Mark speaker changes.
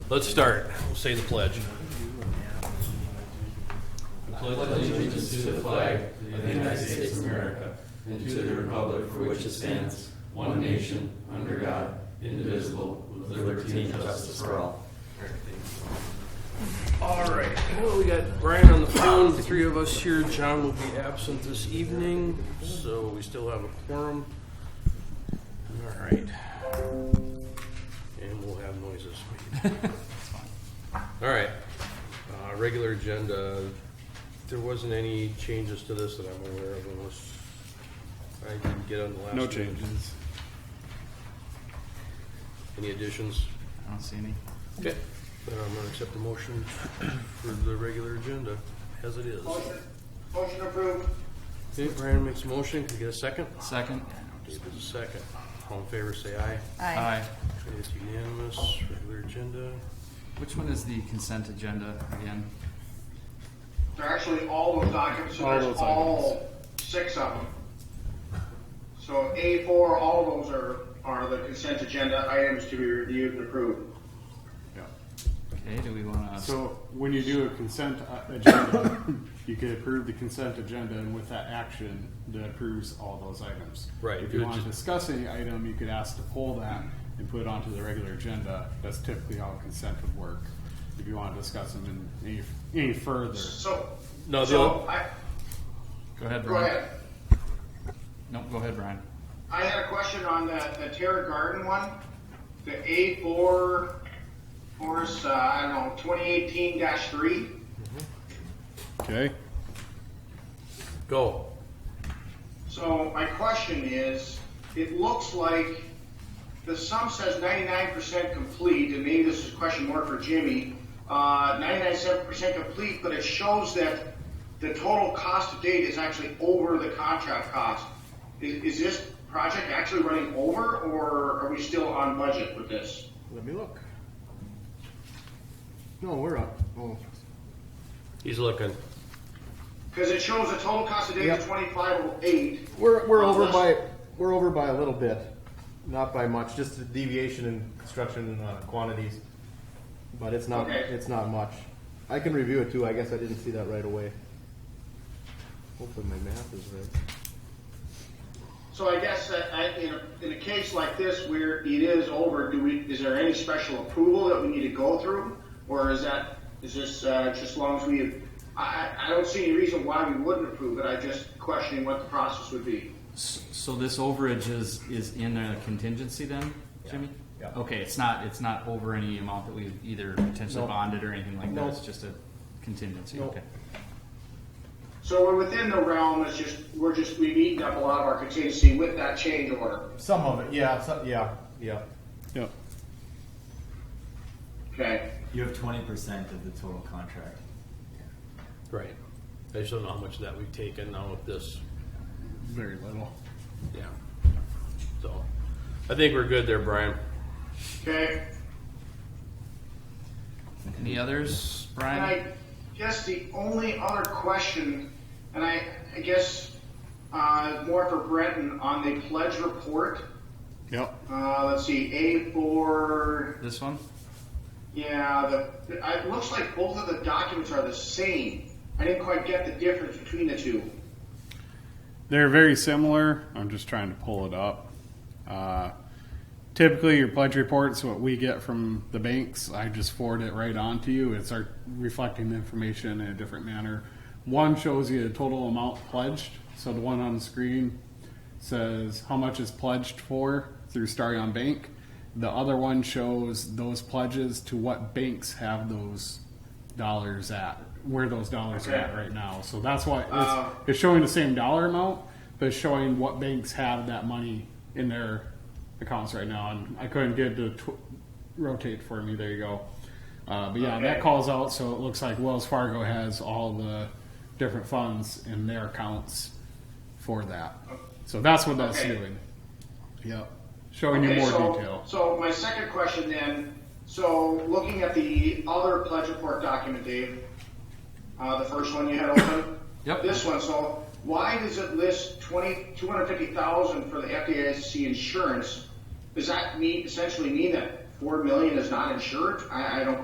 Speaker 1: Let's start. We'll say the pledge.
Speaker 2: All right. Well, we got Brian on the phone. The three of us here. John will be absent this evening, so we still have a quorum. All right. And we'll have noises. All right. Uh, regular agenda. There wasn't any changes to this that I'm aware of unless I didn't get on the last.
Speaker 3: No
Speaker 2: one.
Speaker 3: changes.
Speaker 2: Any additions?
Speaker 3: I don't see any.
Speaker 2: Okay. Then I'm gonna accept the motion for the regular agenda as it is.
Speaker 4: Motion, motion approved.
Speaker 2: Okay, Brian makes a motion, can we get a second?
Speaker 3: Second?
Speaker 2: David's a second. All in favor, say aye.
Speaker 5: Aye.
Speaker 2: Okay, It's unanimous, regular agenda.
Speaker 3: Which one is the consent agenda again?
Speaker 4: They're actually all those documents, so
Speaker 3: All
Speaker 4: there's
Speaker 3: those
Speaker 4: all six of them. So A four, all those are, are the consent agenda items to be reviewed and approved.
Speaker 3: Okay, do we wanna,
Speaker 6: So when you do a consent uh, agenda, you can approve the consent agenda and with that action, that approves all those items.
Speaker 2: Right,
Speaker 6: If
Speaker 2: you
Speaker 6: you
Speaker 2: would
Speaker 6: want to
Speaker 2: just-
Speaker 6: discuss any item, you could ask to pull that and put it onto the regular agenda. That's typically how consent would work. If you want to discuss them in any, any further.
Speaker 4: So,
Speaker 2: No, the,
Speaker 4: so
Speaker 2: o-
Speaker 4: I,
Speaker 3: go ahead,
Speaker 4: go
Speaker 3: Brian.
Speaker 4: ahead.
Speaker 3: No, go ahead, Brian.
Speaker 4: I had a question on the, the Terra Garden one, the A four, force, uh, I don't know, twenty eighteen three.
Speaker 6: Okay.
Speaker 2: go.
Speaker 4: So my question is, it looks like the sum says ninety-nine percent complete, and maybe this is a question more for Jimmy. Uh, ninety-nine percent complete, but it shows that the total cost to date is actually over the contract cost. Is, is this project actually running over, or are we still on budget with this?
Speaker 6: Let me look. No, we're up. Oh,
Speaker 2: He's looking.
Speaker 4: Because it shows the total cost to date is
Speaker 7: Yep.
Speaker 4: twenty-five oh eight.
Speaker 7: We're, we're over by we're over by a little bit, not by much. Just a deviation in construction uh, quantities, but it's not
Speaker 4: Okay.
Speaker 7: it's not much. I can review it too. I guess I didn't see that right away. Hopefully my math is right.
Speaker 4: So I guess that I, in, a, in a case like this where it is over, do we, is there any special approval that we need to go through? Or is that, is this, uh, just as long as we, I, I I don't see any reason why we wouldn't approve it, I'm just questioning what the process would be.
Speaker 3: S- So this overage is, is in a contingency then, Jimmy?
Speaker 7: Yeah.
Speaker 3: Okay, it's not, it's not over any amount that we've either potentially
Speaker 7: No.
Speaker 3: bonded or anything like that,
Speaker 7: No.
Speaker 3: it's just a contingency,
Speaker 7: No.
Speaker 3: okay.
Speaker 4: So we're within the realm, it's just, we're just, we've eaten up a lot of our contingency with that change order,
Speaker 7: Some of it, yeah, some, yeah, yeah.
Speaker 6: yep.
Speaker 4: okay?
Speaker 8: You have twenty percent of the total contract.
Speaker 2: Right. I just don't know how much of that we've taken now with this.
Speaker 6: Very little.
Speaker 2: Yeah. So, I think we're good there, Brian.
Speaker 4: Okay?
Speaker 3: Any others,
Speaker 4: And
Speaker 3: Brian?
Speaker 4: I guess the only other question, and I, I guess, uh, more for Breton on the pledge report.
Speaker 6: Yep.
Speaker 4: Uh, let's see, A four.
Speaker 3: This one?
Speaker 4: Yeah, the it looks like both of the documents are the same. I didn't quite get the difference between the two.
Speaker 6: They're very similar. I'm just trying to pull it up. Uh, typically, your pledge reports, what we get from the banks, I just forward it right on to you. It's our reflecting the information in a different manner. One shows you the total amount pledged. So the one on the screen says how much is pledged for through Starion Bank. The other one shows those pledges to what banks have those dollars at, where those dollars are at
Speaker 4: Okay.
Speaker 6: right now. So that's why it's,
Speaker 4: Uh,
Speaker 6: it's showing the same dollar amount, but it's showing what banks have that money in their accounts right now. And I couldn't get it to tw- rotate for me. There you go. Uh, but yeah,
Speaker 4: Okay.
Speaker 6: that calls out. So it looks like Wells Fargo has all the different funds in their accounts for that. So that's what that's
Speaker 4: Oh. Okay.
Speaker 6: doing. Yep. Showing you more
Speaker 4: so,
Speaker 6: detail.
Speaker 4: So my second question then, so looking at the other pledge report document, Dave, uh, the first one you had open.
Speaker 3: Yep.
Speaker 4: This one, so why does it list twenty, two hundred fifty thousand for the FDIC insurance? Does that mean, essentially mean that four million is not insured? I, I don't